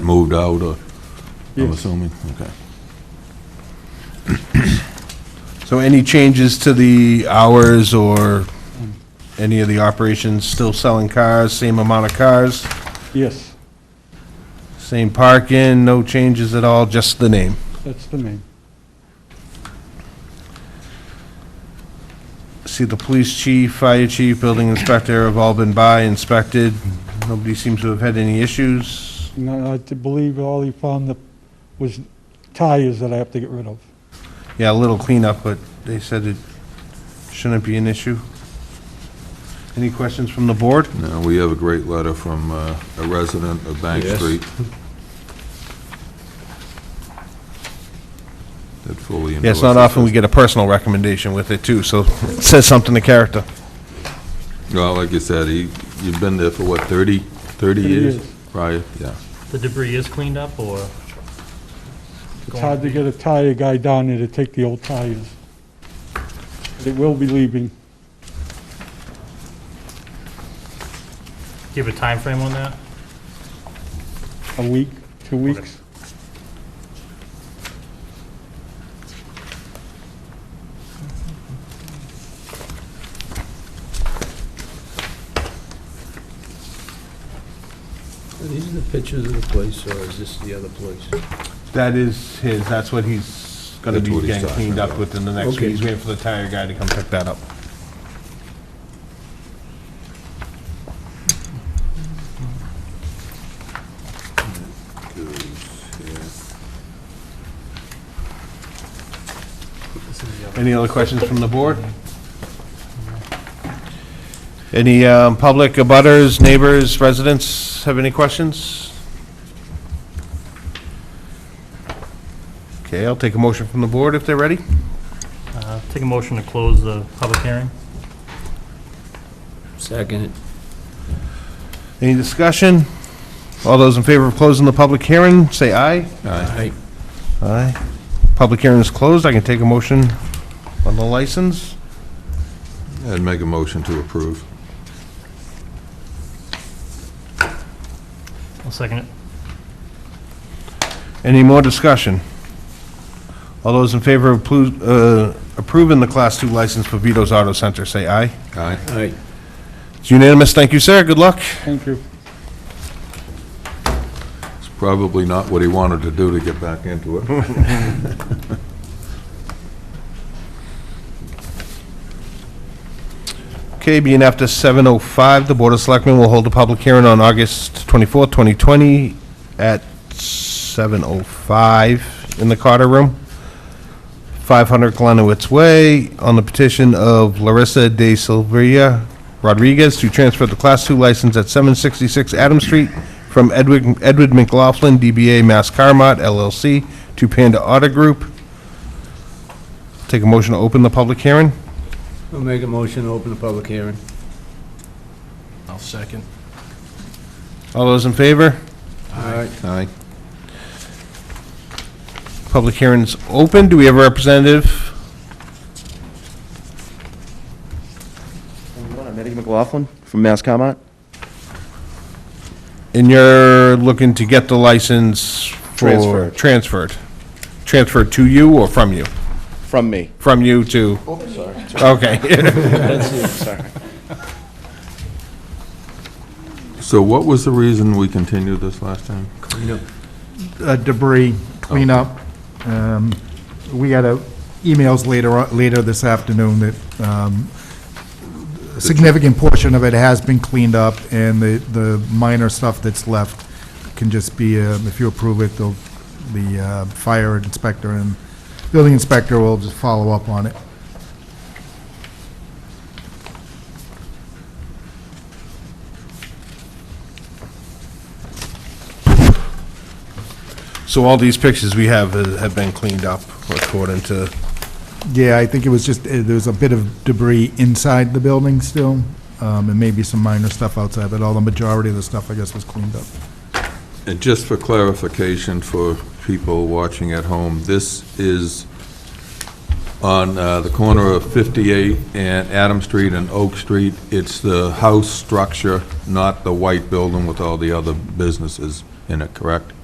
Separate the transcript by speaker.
Speaker 1: moved out, or, I'm
Speaker 2: Yes.
Speaker 1: assuming? Okay.
Speaker 3: So any changes to the hours or any of the operations, still selling cars, same amount of cars,
Speaker 2: Yes,
Speaker 3: same parking, no changes at all, just the name?
Speaker 2: that's the name.
Speaker 3: See, the police chief, fire chief, building inspector have all been by, inspected. Nobody seems to have had any issues.
Speaker 2: No, I t- believe all he found that was tires that I have to get rid of.
Speaker 3: Yeah, a little cleanup, but they said it shouldn't be an issue. Any questions from the board?
Speaker 1: Now, we have a great letter from uh, a resident of Bank
Speaker 4: Yes.
Speaker 1: Street. That fully endorses.
Speaker 3: Yeah, it's not often we get a personal recommendation with it, too, so it says something to character.
Speaker 1: Well, like you said, he, you've been there for what, 30, 30
Speaker 2: Thirty
Speaker 1: years
Speaker 2: years.
Speaker 1: prior? Yeah.
Speaker 4: The debris is cleaned up, or?
Speaker 2: It's hard to get a tire guy down there to take the old tires. It will be leaving.
Speaker 4: Do you have a time frame on that?
Speaker 2: A week, two weeks.
Speaker 5: Are these the pictures of the place, or is this the other place?
Speaker 3: That is his, that's what he's gonna
Speaker 1: That's what
Speaker 3: be
Speaker 1: he's
Speaker 3: getting
Speaker 1: talking
Speaker 3: cleaned up
Speaker 1: about.
Speaker 3: within the next week.
Speaker 5: Okay.
Speaker 3: He's waiting for the tire guy to come pick that up. Any other questions from the board? Any um, public abutters, neighbors, residents have any questions? Okay, I'll take a motion from the board if they're ready.
Speaker 4: Uh, Take a motion to close the public hearing?
Speaker 5: Second.
Speaker 3: Any discussion? All those in favor of closing the public hearing, say aye.
Speaker 5: Aye.
Speaker 3: Aye. Public hearing is closed. I can take a motion on the license.
Speaker 1: And make a motion to approve.
Speaker 4: I'll second it.
Speaker 3: Any more discussion? All those in favor of plu- uh, approving the Class 2 license for Vito's Auto Center, say aye.
Speaker 1: Aye.
Speaker 5: Aye.
Speaker 3: It's unanimous. Thank you, sir. Good luck.
Speaker 2: Thank you.
Speaker 1: It's probably not what he wanted to do to get back into it.
Speaker 3: Okay, being after 7:05, the Board of Selectmen will hold a public hearing on August 24th, 2020, at 7:05 in the Carter Room, 500 Glenowitz Way, on the petition of Larissa De Silveira Rodriguez to transfer the Class II license at 766 Adams Street from Edwin- Edward McLaughlin, DBA Mass Carmot LLC, to Panda Auto Group. Take a motion to open the public hearing.
Speaker 5: I'll make a motion to open the public hearing.
Speaker 6: I'll second.
Speaker 3: All those in favor?
Speaker 5: Aye.
Speaker 1: Aye.
Speaker 3: Public hearing's open. Do we have a representative?
Speaker 7: I'm Eddie McLaughlin from Mass Comet.
Speaker 3: And you're looking to get the license for...
Speaker 7: Transferred.
Speaker 3: Transferred. Transferred to you or from you?
Speaker 7: From me.
Speaker 3: From you to... Okay.
Speaker 1: So what was the reason we continued this last time?
Speaker 8: uh, debris cleanup. Um, We had a- emails later, on- later this afternoon that um, a significant portion of it has been cleaned up, and the, the minor stuff that's left can just be, uh, if you approve it, the, the uh, fire inspector and building inspector will just follow up on it.
Speaker 3: So all these pictures we have uh, have been cleaned up according to...
Speaker 8: Yeah, I think it was just, uh, there was a bit of debris inside the building still, um, and maybe some minor stuff outside, but all the majority of the stuff, I guess, was cleaned up.
Speaker 1: And just for clarification for people watching at home, this is on uh, the corner of 58 and Adam Street and Oak Street. It's the house structure, not the white building with all the other businesses in it, correct?